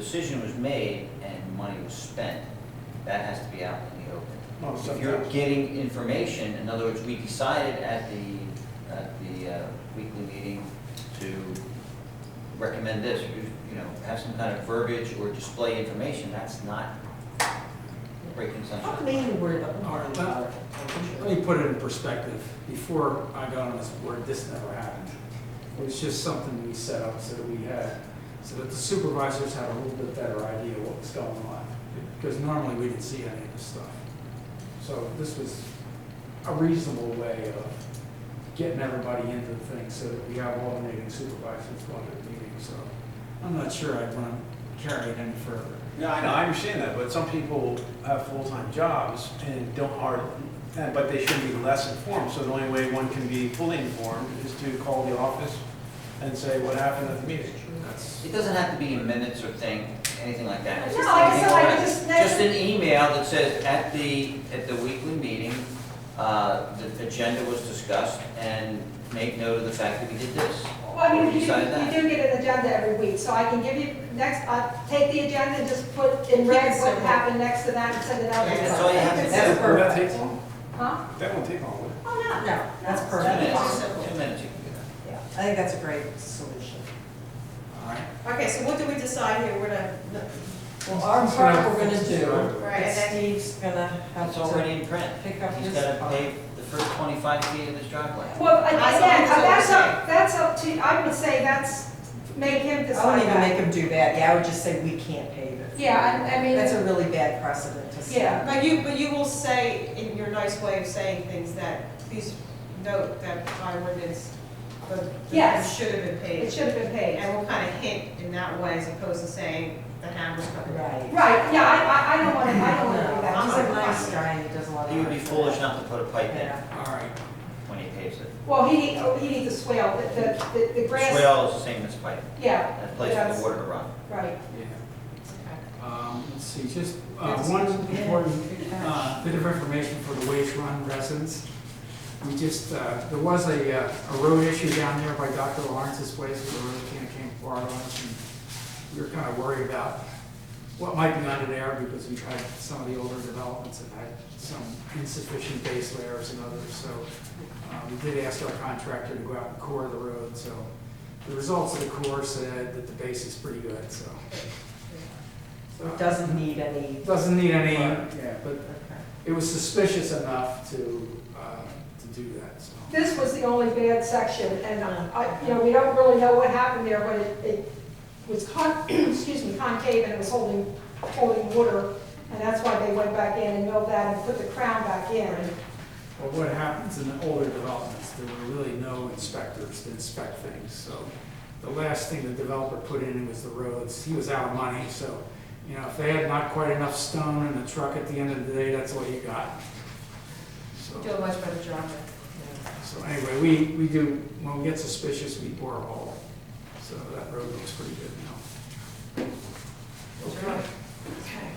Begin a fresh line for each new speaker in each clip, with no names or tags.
decision was made and money was spent, that has to be out in the open.
No,
If you're
sometimes.
getting information, in other words, we decided at the, at the uh, weekly meeting to recommend this, you you know, have some kind of verbiage or display information, that's not great
I'm
consumption.
mainly worried about the
Alright,
parking
well,
lot.
Let me put it in perspective. Before I got on this board, this never happened. It was just something we set up so that we had, so that the supervisors had a little bit better idea what was going on. Because normally we didn't see any of this stuff. So this was a reasonable way of getting everybody into the thing so that we have alternating supervisors going to the meeting. So I'm not sure I'd want to carry it any further.
No, I know, I understand that, but some people have full-time jobs and don't are, and- but they should be less informed, so the only way one can be fully informed is to call the office and say what happened at the meeting.
That's.
It doesn't have to be in minutes or thing, anything like that. It's
No,
just
I guess I
anything-
would just-
Just an email that says, at the, at the weekly meeting, uh, the agenda was discussed, and make note of the fact that we did this.
Well, I mean, you, you
Decide that.
do get an agenda every week, so I can give you, next, I'll take the agenda and just put in red what happened next to that and send it out.
That's all you have to
That's
do.
Would that take long?
Huh?
That won't take long, would it?
Oh, no.
No, that's
Two
perfect.
minutes,
Possible.
two minutes you can do that.
Yeah, I think that's a great solution.
All right.
Okay, so what do we decide here, we're gonna,
Well, our
So-
part we're gonna do,
Right,
and
and then-
Steve's gonna have
It's already
to
in print.
pick up
He's
his
gotta
part.
pay the first twenty-five feet of his driveway.
Well, I-
That's
again, uh,
all I'm
that's
saying.
up, that's up to, I would say that's, make him
I
decide
wouldn't even make
that.
him do that, yeah, I would just say we can't pave it.
Yeah, I- I mean-
That's a really bad precedent to set.
Yeah.
but you, but you will say, in your nice way of saying things, that please note that by ordinance, the, the
Yes.
should have been paid.
It should have been paid.
And we'll kind of hint in that way, as opposed to saying the hammer's coming.
Right.
Right, yeah, I, I, I don't want to, I don't want to do
No,
that.
He's
Just
a
like-
nice guy, and he does a lot of.
He would be
work.
foolish not to put a pipe in
Yeah.
All right.
when he paves it.
Well, he, need- oh, he needs a swale, the, the, the- the grass,
Swale is the same as pipe,
yeah,
a place for
Yes.
the water to run.
right.
Yeah.
Okay.
Um, Let's see, just uh,
That's-
one
yeah,
important
good catch.
uh, bit of information for the Waste Run residents. We just, uh, there was a uh, a road issue down there by Dr. Lawrence's place, where the road kind of came far on us, and we were kind of worried about what might be under there, because we tried some of the older developments that had some insufficient base layers and others, so uh, we did ask our contractor to go out and core the road, so the results of the core said that the base is pretty good, so.
So it doesn't need any,
Doesn't need any,
Right.
yeah, but
okay.
it was suspicious enough to, uh, to do that, so.
This was the only bad section, and, uh, I, you know, we don't really know what happened there, but it, it was con, excuse me, concave and it was holding, holding water, and that's why they went back in and milled that and put the crown back in.
But what happens in the older developments, there were really no inspectors to inspect things, so. The last thing the developer put in was the roads, he was out of money, so, you know, if they had not quite enough stone in the truck at the end of the day, that's all you got. So.
Do a much better job.
So anyway, we, we do, when we get suspicious, we bore a hole. So that road looks pretty good now. Okay.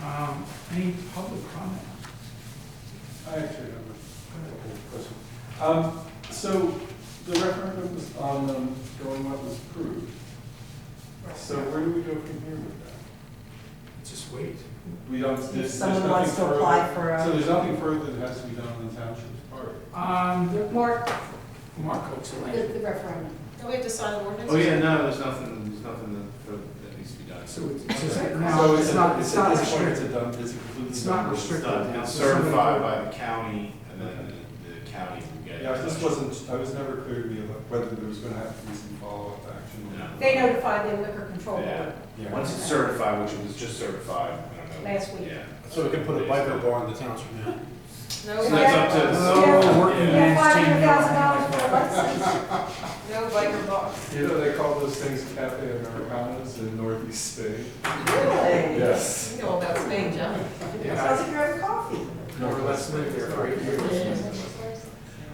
Um, Any public comment?
I actually have a couple of questions. Um, so the referendum was on, um, going what was approved. So where do we go from here with that?
Just wait.
We don't, there's,
If
there's
someone
nothing
wants to
further-
apply for a-
So there's nothing further that has to be done on the township's part.
Um, there-
Mark,
Mark explained.
referendum.
Don't we have to sign the ordinance?
Oh, yeah, no, there's nothing, there's nothing that, that needs to be done.
So it's it's just,
So
no, it's not, it's
at
not
this point, It's a
restricted.
done, it's a completely.
It's not
done.
It's done,
restricted.
it's certified by the county, and then the the county will get it.
Yeah, this wasn't, I was never clear to me about whether there was gonna have to be some follow-up action.
No.
They notified the liquor control
Yeah,
board.
Yeah.
once it's certified, which it was just certified, I don't know.
Last week.
Yeah.
So we can put a biker bar in the township now.
No,
So that's up
biker-
to the
Oh, working
Yeah.
Yeah,
man's
five
changing.
hundred thousand dollars for a license.
no biker bar.
You know, they call those things cafe americanas in northeast Spain.
Really?
Yes.
You know about Spain, John.
How's
Yeah,
it grab coffee?
No, let's live there for eight years.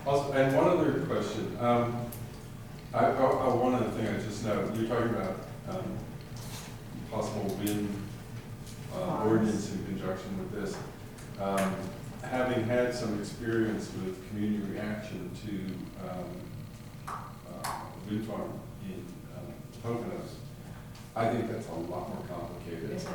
Also, and one other question, um, I, I, I- one other thing I just know, you're talking about, um, possible wind, uh, ordinance in conjunction with this. Um, having had some experience with community reaction to, um, uh, wind farm in, um, Poconos, I think that's a lot more complicated.
Yes, I